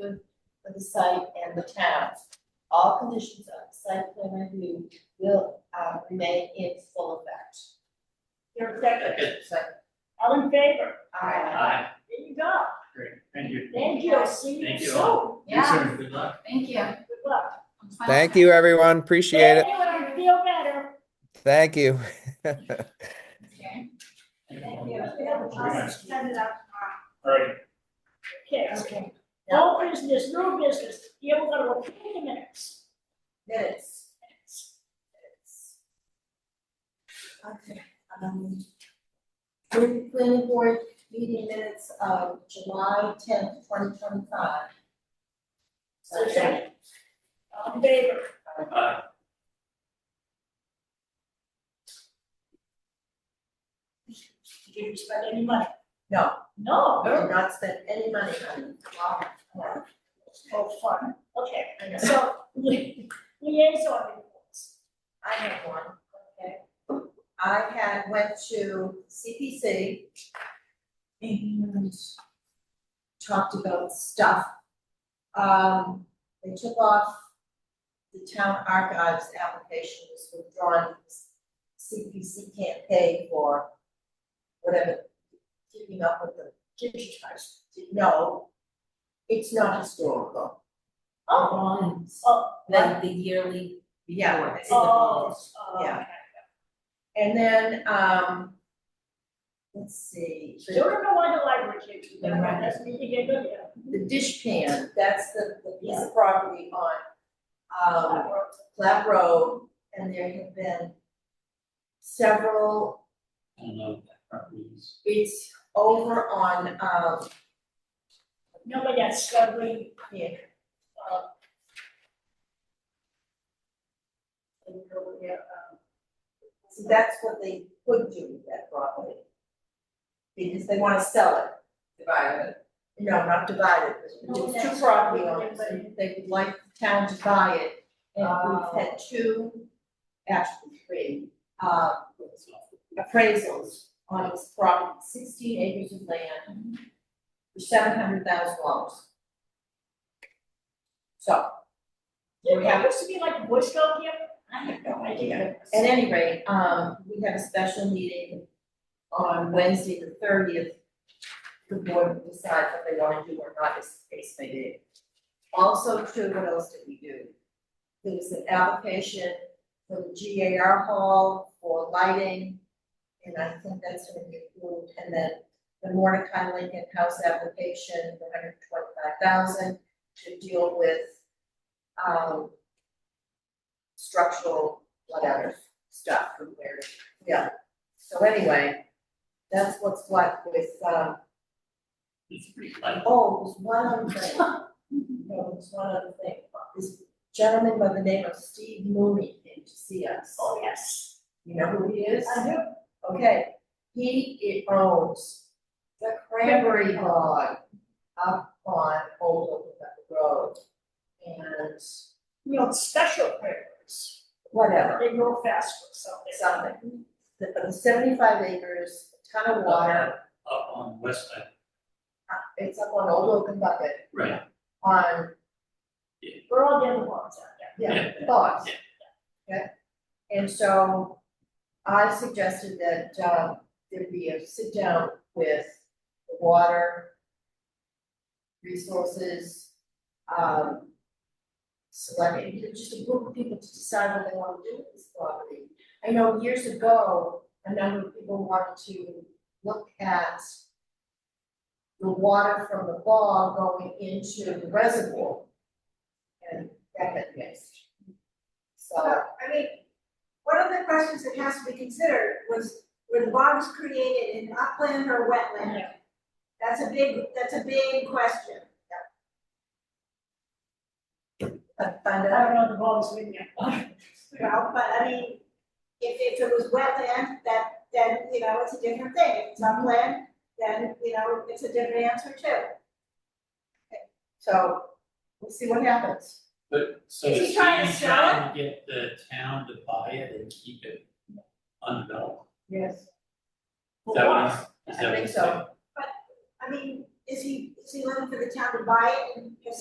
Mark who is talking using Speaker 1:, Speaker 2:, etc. Speaker 1: good for the site and the town. All conditions of the site plan review will, uh, remain in full effect.
Speaker 2: Your second,
Speaker 3: Second.
Speaker 2: all in favor?
Speaker 4: Uh,
Speaker 1: Aye.
Speaker 3: Aye.
Speaker 2: There you go.
Speaker 3: Great, thank you.
Speaker 2: Thank you. See you
Speaker 3: Thank you
Speaker 2: soon.
Speaker 3: all.
Speaker 4: Yeah.
Speaker 3: You too. Good luck.
Speaker 4: Thank you.
Speaker 2: Good luck.
Speaker 5: Thank you, everyone. Appreciate it.
Speaker 2: Anyway, I feel better.
Speaker 5: Thank you.
Speaker 4: Okay.
Speaker 3: Oh,
Speaker 2: Thank you. I'll Send it out.
Speaker 3: All right,
Speaker 2: Okay.
Speaker 1: Okay,
Speaker 2: No business, no business. Yeah, we're gonna approve the minutes.
Speaker 1: minutes. Okay, um, during the planning board meeting minutes of July tenth, twenty twenty-five.
Speaker 2: So, second. All in favor?
Speaker 3: aye.
Speaker 2: Did you spend any money?
Speaker 1: No.
Speaker 2: No.
Speaker 1: Did not spend any money on it. Wow.
Speaker 2: Oh, fun. Okay,
Speaker 1: I know.
Speaker 2: so li- liaison reports.
Speaker 1: I have one, okay. I had went to CPC and talked about stuff. Um, they took off the town archives application was withdrawn. CPC can't pay for whatever, keeping up with the digitized, no, it's not historical.
Speaker 2: Oh, oh,
Speaker 6: Like the yearly,
Speaker 1: Yeah, it's in the
Speaker 2: oh,
Speaker 1: bonus.
Speaker 2: oh,
Speaker 1: Yeah.
Speaker 2: okay.
Speaker 1: And then, um, let's see,
Speaker 2: So you
Speaker 1: the
Speaker 2: don't know why the library can't do that, right? That's me, you get good, yeah.
Speaker 1: the dish pan, that's the, the piece of property on, um, Flat Road, and there have been several,
Speaker 3: I don't know if that property is.
Speaker 1: it's over on, um,
Speaker 2: No, but that's struggling.
Speaker 1: yeah, uh, and over there, um, so that's what they could do with that property. Because they wanna sell it.
Speaker 6: divided.
Speaker 1: No, not divided, it was two property owners, and they would like the town to buy it, and we've had two, actually three, uh, appraisals on its property, sixteen acres of land for seven hundred thousand dollars. So,
Speaker 2: There happens to be like a Boy Scout camp. I have no idea.
Speaker 1: At any rate, um, we have a special meeting on Wednesday, the thirtieth. The board will decide what they wanna do or not, as the case may be. Also, too, what else did we do? There was an application for the GAR hall for lighting, and I think that's gonna be approved, and then the Mordecai Lincoln House application for hundred twenty-five thousand to deal with, um, structural whatever stuff from where, yeah. So anyway, that's what's what with, um,
Speaker 3: It's pretty light.
Speaker 1: oh, there's one other thing. No, there's one other thing. This gentleman by the name of Steve Mooney came to see us.
Speaker 2: Oh, yes.
Speaker 1: You know who he is?
Speaker 2: I do.
Speaker 1: Okay, he i- owns the cranberry bog up on Old Oaken Road. And
Speaker 2: You know, special prayers.
Speaker 1: whatever,
Speaker 2: They grow faster, so.
Speaker 1: something. The the seventy-five acres, ton of water,
Speaker 3: Up on West Side,
Speaker 1: uh, it's up on Old Oaken Bucket.
Speaker 3: right,
Speaker 1: on,
Speaker 2: We're all getting along, so, yeah.
Speaker 1: yeah,
Speaker 3: Yeah.
Speaker 1: thoughts. Okay, and so I suggested that, uh, there be a sit down with the water resources, um, select, you know, just a group of people to decide what they want to do with this property. I know years ago, a number of people wanted to look at the water from the bog going into the reservoir. And that had missed. So,
Speaker 7: I mean, one of the questions that has to be considered was, were the bogs created in upland or wetland? That's a big, that's a big question.
Speaker 1: I find
Speaker 2: I
Speaker 1: out,
Speaker 2: don't know, the ball is ringing.
Speaker 7: Well, but I mean, if, if it was wetland, that, then, you know, it's a different thing. If it's upland, then, you know, it's a different answer too.
Speaker 1: so we'll see what happens.
Speaker 3: but so.
Speaker 2: Is he trying to sell it?
Speaker 3: trying to Get the town to buy it and keep it undeveloped.
Speaker 1: Yes.
Speaker 3: Is that what he's- is
Speaker 1: I
Speaker 3: that what
Speaker 1: think
Speaker 3: he's
Speaker 1: so.
Speaker 3: saying?
Speaker 7: I mean, is he, is he looking for the town to buy it and just